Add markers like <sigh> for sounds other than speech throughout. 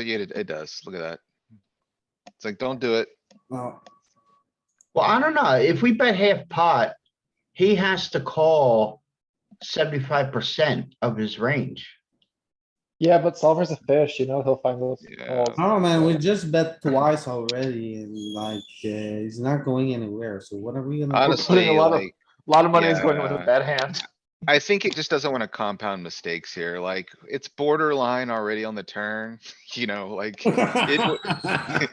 yeah, it, it does. Look at that. It's like, don't do it. No, Well, I don't know. If we bet half pot, he has to call seventy-five percent of his range. Yeah, but solver's a fish, you know, he'll find those. Yeah. calls. oh man, we just bet twice already and like, uh, he's not going anywhere, so what are we gonna? do? Honestly, a lot of- like, A lot of money is going with a Yeah. bad hand. I think it just doesn't wanna compound mistakes here. Like, it's borderline already on the turn, <laughs> you know, <laughs> like. <laughs> it-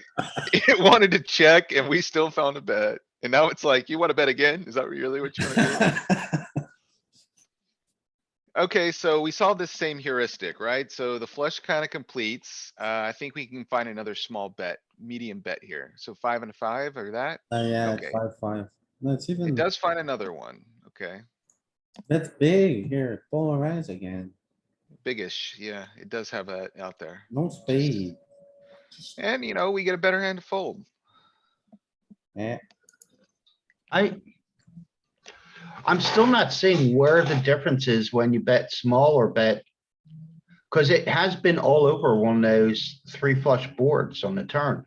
It wanted to check and we still found a bet. And now it's like, you wanna bet again? Is that really what you wanna do? <laughs> Okay, so we saw this same heuristic, right? So the flush kinda completes. Uh, I think we can find another small bet, medium bet here. So five and a five or that. Uh, Yeah, it's Okay. five, five. That's even, Hmm. It does find another one, okay? that's big here, polarize again, Biggish, yeah, it does have that out there. no spade. And you know, we get a better hand to fold. Eh, I. I'm still not seeing where the difference is when you bet small or bet. Cause it has been all over one of those three flush boards on the turn.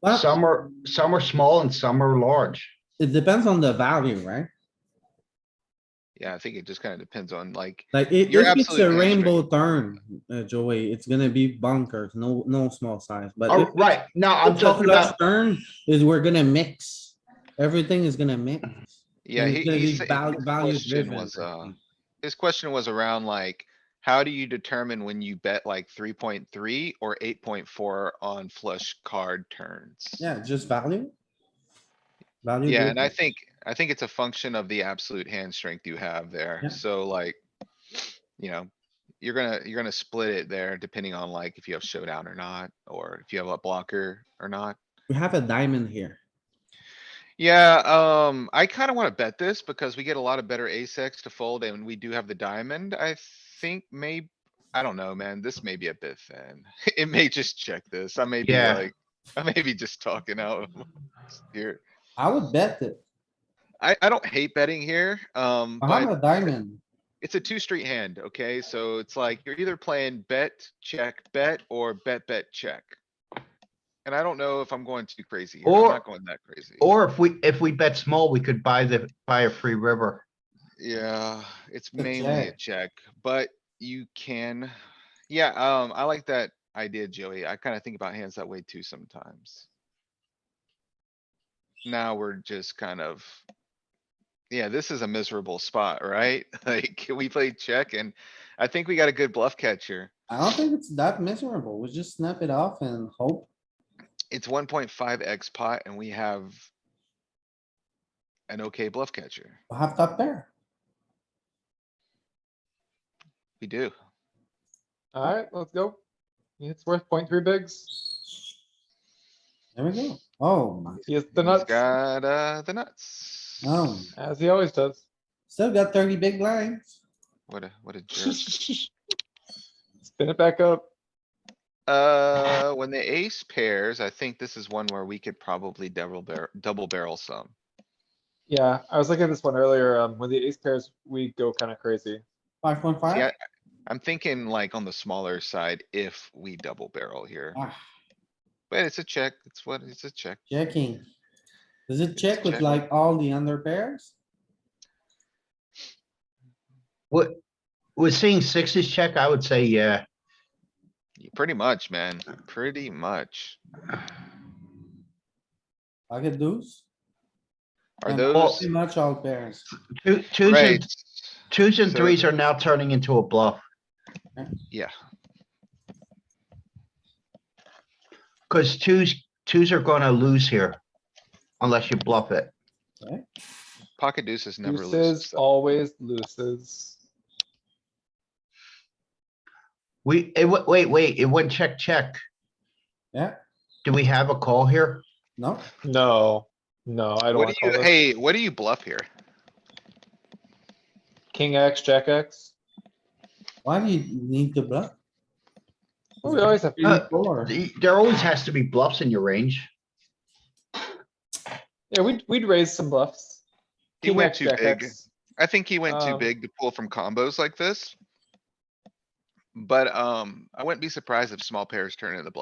but Some are, some are small and some are large. it depends on the value, right? Yeah, I think it just kinda depends on like, Like if, You're if it's a absolutely right, Jake. rainbow turn, uh, Joey, it's gonna be bunkers, no, no small size, but. Oh, if it's right, no, I'm a talking flush about, Turn is we're gonna mix. Everything is gonna mix. yeah, and he, it's gonna he be said- val- his value question driven, was, I uh, think. his question was around like, how do you determine when you bet like three point three or eight point four on flush card turns? Yeah, just value. Value. Yeah, and I driven. think, I think it's a function of the absolute hand strength you have there, Yeah. so like, you know, you're gonna, you're gonna split it there depending on like if you have showdown or not, or if you have a blocker or not. We have a diamond here. Yeah, um, I kinda wanna bet this because we get a lot of better ace X to fold and we do have the diamond, I think may, I don't know, man, this may be a bit thin. <laughs> It may just check this, I may be Yeah. like, I may be just talking out <laughs> of here. I would bet that I, I don't hate betting here, um, I Uh-huh. have but a diamond. it's a two street hand, okay? So it's like you're either playing bet, check, bet, or bet, bet, check. And I don't know if I'm going too crazy. here. I'm Or- not going that crazy. or if we, if we bet small, we could buy the, buy a free river. Yeah, it's a mainly a check, but you can, yeah, um, I like that idea, Joey. I kinda think about hands that way too sometimes. Now we're just kind of. Yeah, this is a miserable spot, right? <laughs> Like, we played check and I think we got a good bluff catcher. I don't think it's that miserable. We just snap it off and hope. It's one point five X pot and we have. An okay bluff catcher. we Have top pair. We do. Alright, let's go. It's worth point three bigs. There we go. Oh my, He has the He's nuts, Got, uh, the nuts. oh, as he always does. still got thirty big blinds. What a, what a <laughs> jerk. Spin it back up. <laughs> Uh, when the ace pairs, I think this is one where we could probably double barrel, double barrel some. Yeah, I was looking at this one earlier. Um, when the ace pairs, we go kind of crazy. Five point Yeah. five. I'm thinking like on the smaller side if we double barrel here, Ah. but it's a check. It's what, it's a check. Checking. Does it check with checking. like all the under pairs? What, was seeing sixes check, I would say, yeah. Pretty much, man. Pretty much. I get those. Are And those Pretty much all pairs. Two, twos and, right? twos and So- threes are now turning into a bluff, Yeah, cause twos, twos are gonna lose here. Unless you bluff it. pocket deuces never loses. Deuces always loses. We, it, wa- wait, wait, it went check, check. Yeah. Do we have a call here? No, No, no, I What don't wanna do call you, this. hey, what do you bluff here? King X, Jack X. why do you need to bluff? Oh, We always have, Uh, Four. Y- There always has to be bluffs in your range. yeah, we'd, we'd raise some bluffs. He King went X, too Jack big. X. I think he went too Um, big to pull from combos like this. But, um, I wouldn't be surprised if small pairs turn into the bluff.